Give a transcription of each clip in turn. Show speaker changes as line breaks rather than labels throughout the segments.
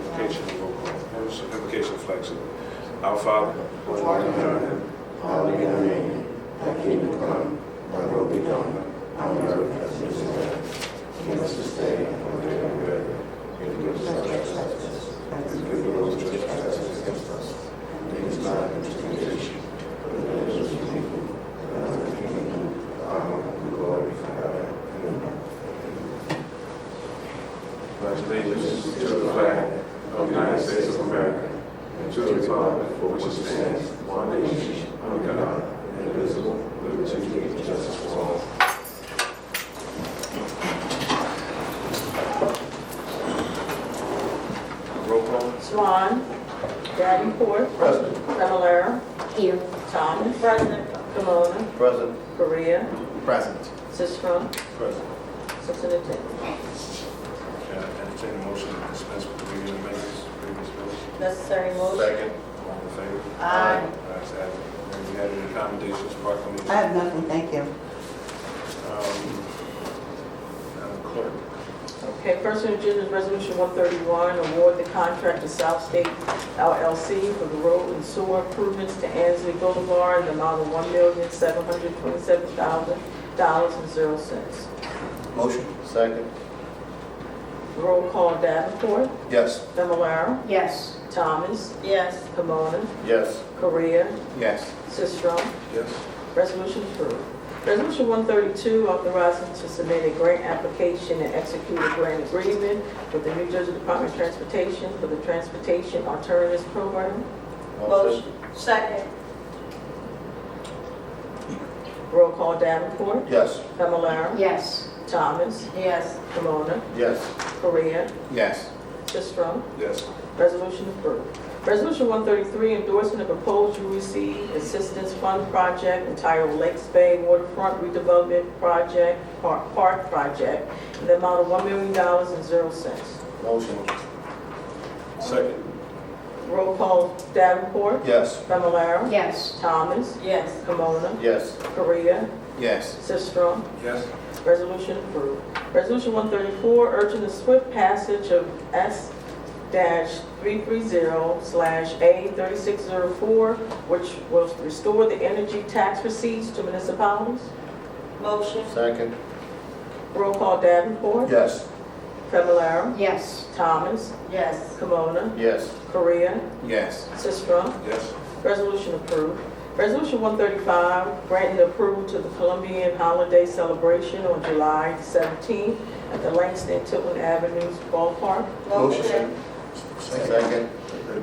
Implication of local, implication of flexible. Our Father, who art in heaven,
Hallowed be thy name, thy kingdom come, thy will be done, on earth as it is in heaven. Give us this day our daily bread, and forgive us our trespasses, as we forgive those who trespass against us. And lead us not into temptation, but deliver us from evil. For thine is the kingdom, the power, and the glory forever and ever.
pledge allegiance to the flag of the United States of America and to the republic for which it stands, one nation, under God, indivisible, with liberty and justice for all. Roll call.
Swan. Davenport.
President.
Fennelara.
Here.
Thomas. President. Camona.
Present.
Korea.
Present.
Sisram.
President.
Six and a ten.
Entertain a motion to dispense with the reading of the minutes, previous bills.
Necessary motion.
Second.
All in favor?
Aye.
Ayes have it. Have you had any accommodations,
I
proclamations?
have nothing, thank you.
Um, Madam Clerk,
Okay, first on the agenda is Resolution 131, award the contract to South State LLC for the road and sewer improvements to Ansley Boulevard in the amount of $1,727,000.00.
Motion. Second.
Roll call Davenport.
Yes.
Fennelara.
Yes.
Thomas. Yes. Camona.
Yes.
Korea.
Yes.
Sisram.
yes?
Resolution approved. Resolution 132, authorizing to submit a grant application and execute a grant agreement with the New Jersey Department of Transportation for the Transportation Alternatives Program.
Motion.
Second.
Roll call Davenport,
Yes.
Familar,
Yes.
Thomas,
Yes.
Camona,
Yes.
Korea,
Yes.
Sistrum.
Yes.
Resolution approved. Resolution 133, endorsing the proposed UEC Assistance Fund Project entitled Lakes Bay Waterfront Redevelopment Project, Park Park Project, in the amount of $1 million and zero cents.
Motion.
Second?
Roll call Davenport.
Yes.
Familar.
Yes.
Thomas. Yes. Camona.
Yes.
Korea.
Yes.
Sistrum.
Yes.
Resolution approved. Resolution 134, urging the swift passage of S-330/A3604, which will restore the energy tax receipts to municipalities. Motion.
Second.
Roll call Davenport.
Yes.
Familar.
Yes.
Thomas.
Yes.
Camona.
Yes.
Korea.
Yes.
Sistrum.
Yes.
Resolution approved. Resolution 135, granting approval to the Colombian Holiday Celebration on July 17th at the Langston Tilton Avenues Ballpark.
Motion. Second.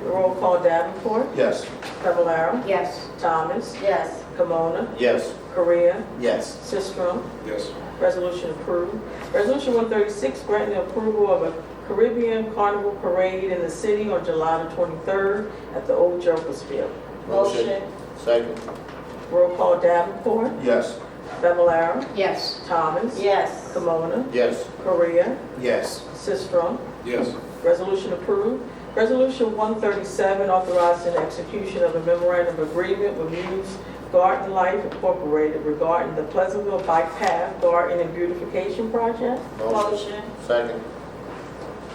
Roll call Davenport,
Yes.
Fablelaro,
Yes.
Thomas,
Yes.
Camona,
Yes.
Korea,
Yes.
Sistrum.
Yes.
Resolution approved. Resolution 136, granting approval of a Caribbean Carnival Parade in the city on July the 23rd at the Old Jervis Field.
Motion. Second.
Roll call Davenport,
Yes.
Fablelaro,
Yes.
Thomas,
Yes.
Camona,
Yes.
Korea,
Yes.
Sistrum.
Yes.
Resolution approved. Resolution 137, authorizing execution of a memorandum of agreement with Muse Garden Life Incorporated regarding the Pleasantville Bike Path Garden and Beautification Project.
Second.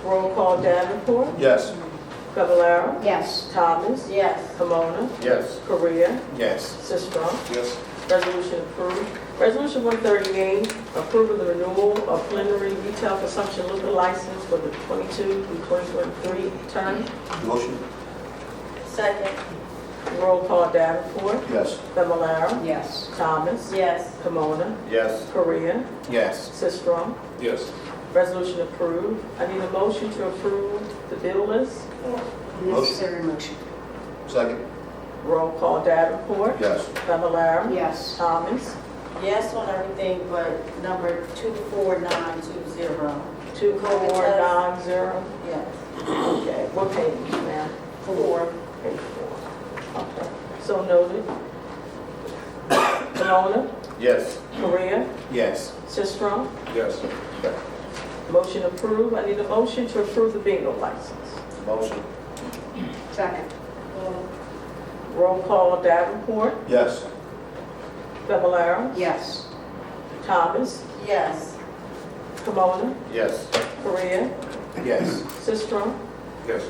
Roll call Davenport,
Yes.
Fablelaro,
Yes.
Thomas,
Yes.
Camona,
Yes.
Korea,
Yes.
Sistrum.
Yes.
Resolution approved. Resolution 138, approving the renewal of plenary retail consumption liquor license for the 22 through 2023 term.
Motion.
Second. Roll call Davenport,
Yes.
Familar,
Yes.
Thomas,
Yes.
Kimona,
Yes.
Korea,
Yes.
Sistrum.
Yes.
Resolution approved. I need a motion to approve the bill list.
Necessary motion.
Second.
Roll call Davenport,
Yes.
Familar,
Yes.
Thomas,
Yes on everything but number 24920.
two four nine zero.
Yes.
Okay, what page, ma'am?
Four.
Page four. Okay, so noted. Kimona,
Yes.
Korea,
Yes.
Sistrum.
Yes.
Motion approved. I need a motion to approve the bingo license.
Motion.
Second.
Roll call Davenport,
Yes.
Fablelaro,
Yes.
Thomas,
Yes.
Kimona,
Yes.
Korea,
Yes.
Sistrum.
Yes.